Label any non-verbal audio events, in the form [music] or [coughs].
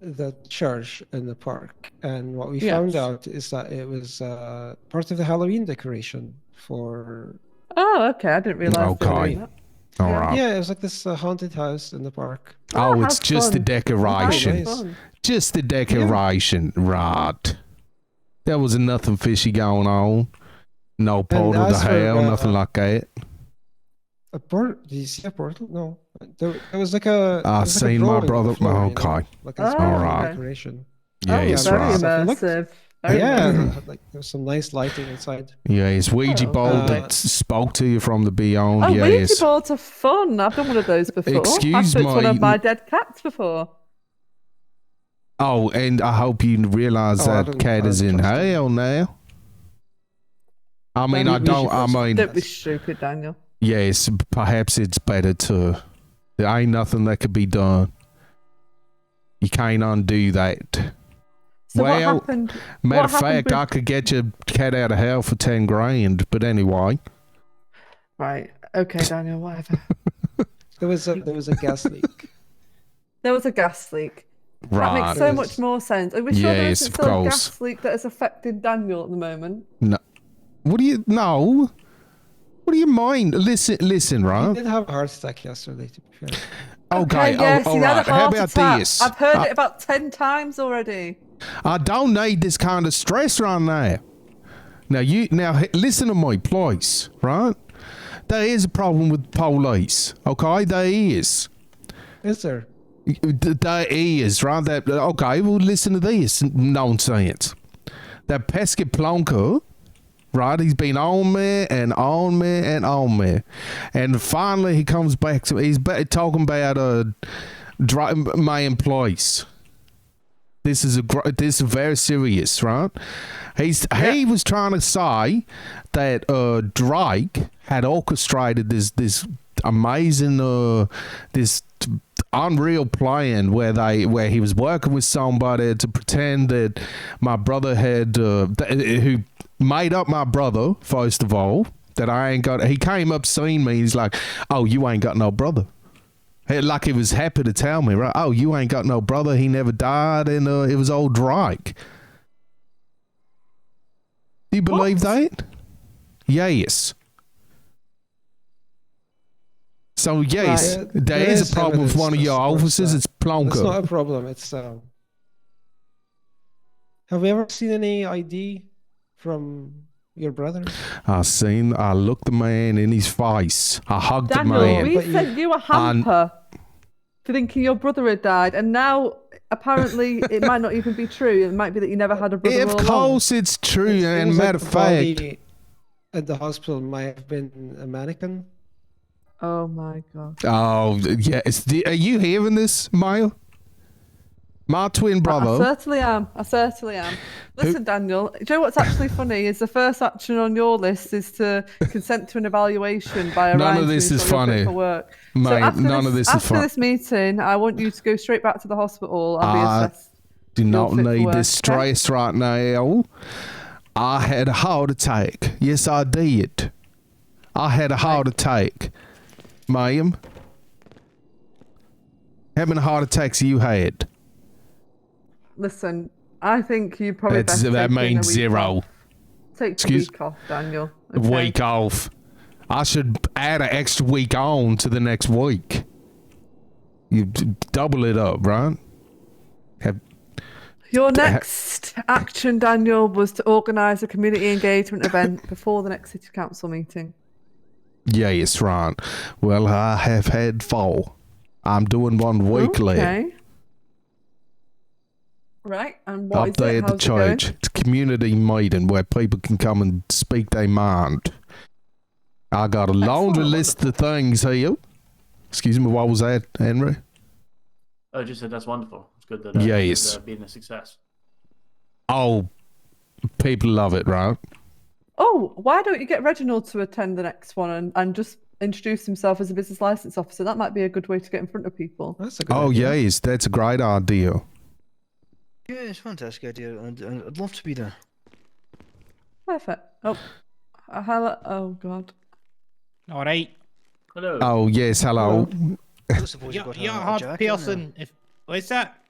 the church in the park, and what we Yes. found out is that it was uh, part of the Halloween decoration for. Oh, okay. I didn't realize. they were Okay. doing that. All right. Yeah, it was like this uh, haunted house in the park. Oh, Oh, it's how just the fun. Oh, that's decoration. Nice. fun. Just the decoration, right? There was nothing fishy going on. No portal to as for, hell, uh, nothing like that. A portal? Did you see a portal? No, there, there was like a. there I was uh, like a seen my drawing on the brother. floor, you know, okay, like Oh, a small okay. decoration. yeah, oh, yes, very right. immersive. Very yeah, immersive. had, like there was some nice lighting inside. Yes, Ouija Oh. board Uh, that s- spoke to you from the beyond. Oh, yes. Ouija boards are fun. I've done one of those before. I've Excuse put one my- of my dead cats before. Oh, and I hope you realize Oh, I that don't- cat I is don't in trust him. hell now. I mean, we- I we don't. should I trust him. mean, That- Don't be stupid, Daniel. yes, perhaps it's better to. There ain't nothing that could be done. You can't undo that. So what Well, happened? Matter What of happened fact, with- I could get your cat out of hell for ten grand. But anyway, Right. Okay, Daniel. [laughs] Whatever. There was a there was a gas leak. there was a gas leak. That right? makes so Yes. much more sense. Are we sure there Yes, isn't of still a course. gas leak that has affected Daniel at the moment? no. What do you? No. What do you mean? Listen, listen, I right? did have a heart attack yesterday. To be fair, Okay. yes, oh, he's all had a right. How heart about attack. this? Uh, I've heard I- it about ten times already. I don't need this kind of stress right now. Now you now h- listen to me, please. Right? There is a problem with police. Okay, there is. is there? Y- th- There is right. That okay. Well, listen to this nonsense. That pesky plonker, right? He's been on me and on me and on me, and finally he comes back to me. He's ba- talking about uh, dri- my employees. This is a gr- this is very serious, right? He's he was trying to say that uh, Drake had orchestrated this this amazing uh, this t- unreal plan where they where he was working with somebody to pretend that my brother had uh, th- who made up my brother first of all that I ain't got. He came up seeing me. He's like, "Oh, you ain't got no brother." Hey, like he was happy to tell me, right? Oh, you ain't got no brother. He never died, and uh, it was old Drake. Do you believe that? Yes. So yes, Right. there There is is a problem with evidence one of that your supports officers. that. It's That's Plonker. not a problem. It's um. Have we ever seen any ID from your brother? I seen. I looked the man in his face. I hugged the Daniel, man. we But you- sent you a hamper for thinking your brother had died, and now apparently it might not even be true. It might be that you never had a brother. of all along. course, it's true. It and seems like matter of the fact, body at the hospital might have been a mannequin. Oh my god. Oh yeah, it's the, are you hearing this, Maya? My twin I brother. certainly am. I certainly am. Listen, Daniel, do you know what's actually funny is the first action on your list is to consent to an evaluation by a None of this is funny. For work. Mate, after none this, of this is after fun. this meeting, I want you to go straight back to the hospital and Ah, be assessed. Do not fit for need work, this okay? stress right now. I had a heart attack. Yes, I did. I had a heart attack, ma'am. How many heart attacks you had? Listen, I think you probably best That's, that take in a means week zero. off. Take Excuse- the week off, Daniel. okay? Week off. I should add an extra week on to the next week. You d- double it up, right? Have, Your next action, Daniel, was to organise a community engagement [laughs] event before the next city council meeting. Yes, right. Well, I have had four. I'm doing one weekly. Okay. Right, and what Up is it? there at the How's it going? church. It's a community meeting where people can come and speak their mind. I got a laundry Excellent. list of things here. Excuse me, what was that, Henry? I Oh, just said that's wonderful. It's good that uh, Yes. it's, uh, being a success. Oh, people love it, right? Oh, why don't you get Reginald to attend the next one and, and just introduce himself as a business license officer? That might be a good way to get in front of people. That's a good. Oh, idea. yes, that's a great idea. Yeah, it's a fantastic idea, and, and I'd love to be there. Perfect. Oh, uh, hello. Oh, God. All right. [coughs] Hello. Oh, yes, hello. I suppose you've You're, got a, you're a a hard jacket and a- person. If what's that?